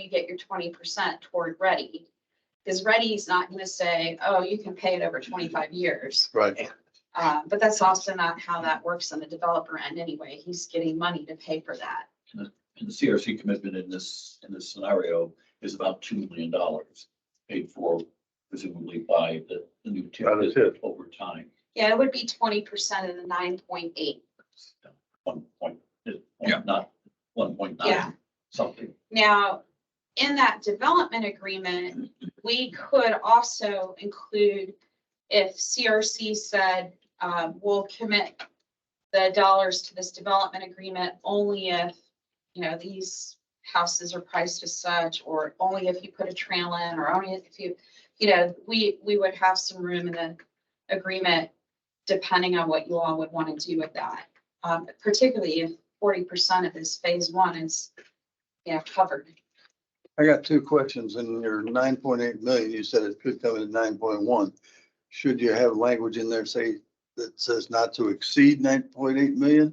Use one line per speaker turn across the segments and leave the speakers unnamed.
you get your twenty percent toward ready. Because ready's not gonna say, oh, you can pay it over twenty-five years.
Right.
Uh, but that's also not how that works on the developer end anyway. He's getting money to pay for that.
And the CRC commitment in this, in this scenario is about two million dollars paid for presumably by the, the new TIF
By the TIF.
over time.
Yeah, it would be twenty percent of the nine point eight.
One point, one, not, one point
Yeah.
nine, something.
Now, in that development agreement, we could also include if CRC said, uh, we'll commit the dollars to this development agreement only if, you know, these houses are priced as such, or only if you put a trail in, or only if you, you know, we, we would have some room in the agreement depending on what you all would want to do with that. Um, particularly if forty percent of this phase one is yeah, covered.
I got two questions. In your nine point eight million, you said it could come in at nine point one. Should you have language in there say that says not to exceed nine point eight million?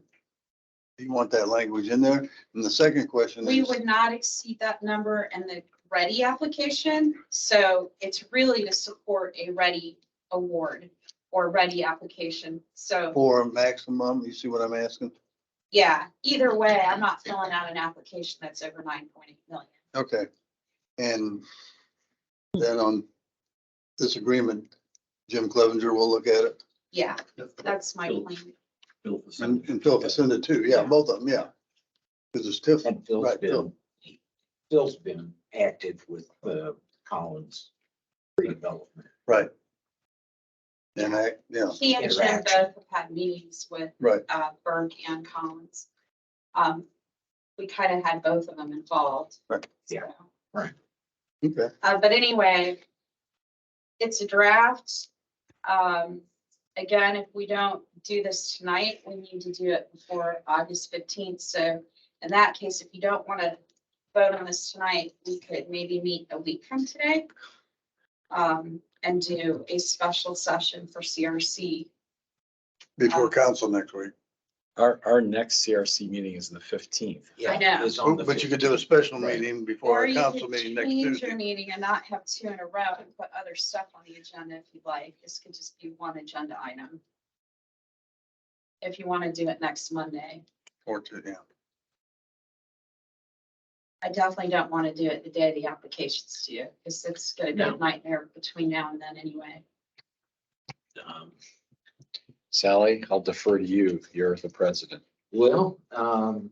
Do you want that language in there? And the second question
We
is,
would not exceed that number in the ready application, so it's really to support a ready award or ready application. So,
for a maximum, you see what I'm asking?
yeah, either way, I'm not filling out an application that's over nine point eight million.
Okay. And then on this agreement, Jim Clevenger will look at it
Yeah, that's my
Bill-
plan.
Bill Facenda.
and, and Phil Vicenda too. Yeah, both of them, yeah. Because it's TIF,
And Phil's
Right, Phil.
been, Phil's been active with
uh,
the Collins redevelopment.
right. And I, yeah.
He and Jim both
Interaction.
have had meetings with
Right.
uh, Burke and Collins. Um, we kind of had both of them involved.
Right.
Yeah.
so.
Okay.
Uh, but anyway, it's a draft. Um, again, if we don't do this tonight, we need to do it before August fifteenth. So in that case, if you don't want to vote on this tonight, we could maybe meet a week from today. Um, and do a special session for CRC.
Before council next week.
Our, our next CRC meeting is the fifteenth.
I know.
it's on the
But you could do a special
Right.
meeting before
Or
our
you
council
could
meeting next
change your
Tuesday.
meeting and not have two in a row and put other stuff on the agenda if you'd like. This could just be one agenda item. If you want to do it next Monday.
Or two, yeah.
I definitely don't want to do it the day the application's due, because it's gonna be a
No.
nightmare between now and then anyway.
um,
Sally, I'll defer to you. You're the president.
Well, um.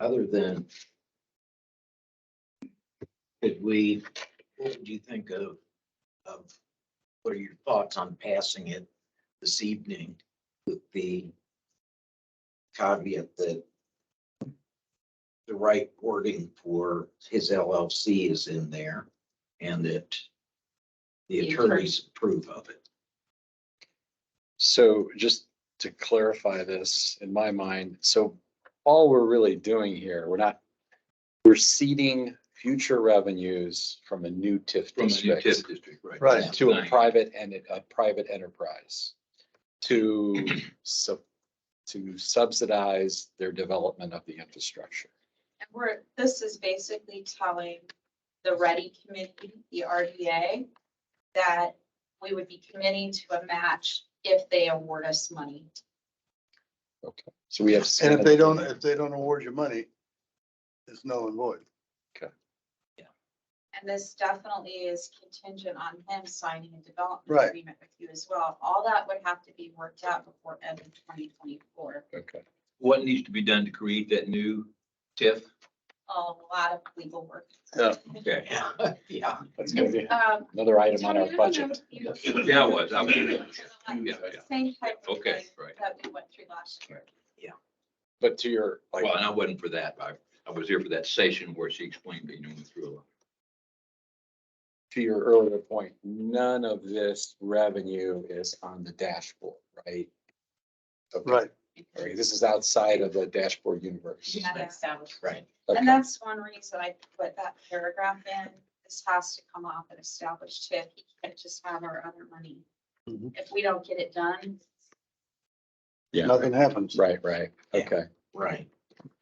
Other than. Could we, what do you think of, of, what are your thoughts on passing it this evening with the caveat that the right wording for his LLC is in there and that the
The attorney-
attorneys approve of it?
So just to clarify this in my mind, so all we're really doing here, we're not, we're seeding future revenues from a new TIF
From the new TIF
district
district, right.
Right.
Yeah.
to a private and a private enterprise to sub to subsidize their development of the infrastructure.
And we're, this is basically telling the ready committee, the RDA, that we would be committing to a match if they award us money.
Okay, so we have.
And if they don't, if they don't award you money, it's null and void.
And this definitely is contingent on him signing a development
Right.
agreement with you as well. All that would have to be worked out before end of twenty twenty-four.
Okay,
What needs to be done to create that new TIF?
A lot of legal work.
Okay.
Yeah.
that's gonna be
Um,
another item on our
Tony, I don't know
budget.
if you-
Yeah, I was, I was. Yeah, yeah.
Same type of
Okay,
thing
right.
that we went through last year.
But to your, like,
Well, and I wasn't for that. I, I was here for that session where she explained, you know, through a lot.
to your earlier point, none of this revenue is on the dashboard, right? Okay.
Right.
Okay, This is outside of the dashboard universe.
We had to establish.
Right.
Okay.
And that's one reason I put that paragraph in. This has to come off an established tip. You can't just have our other money.
Mm-hmm.
Mhm.
If we don't get it done,
Yeah,
Nothing happens.
right, right,
Yeah.
okay.
Right.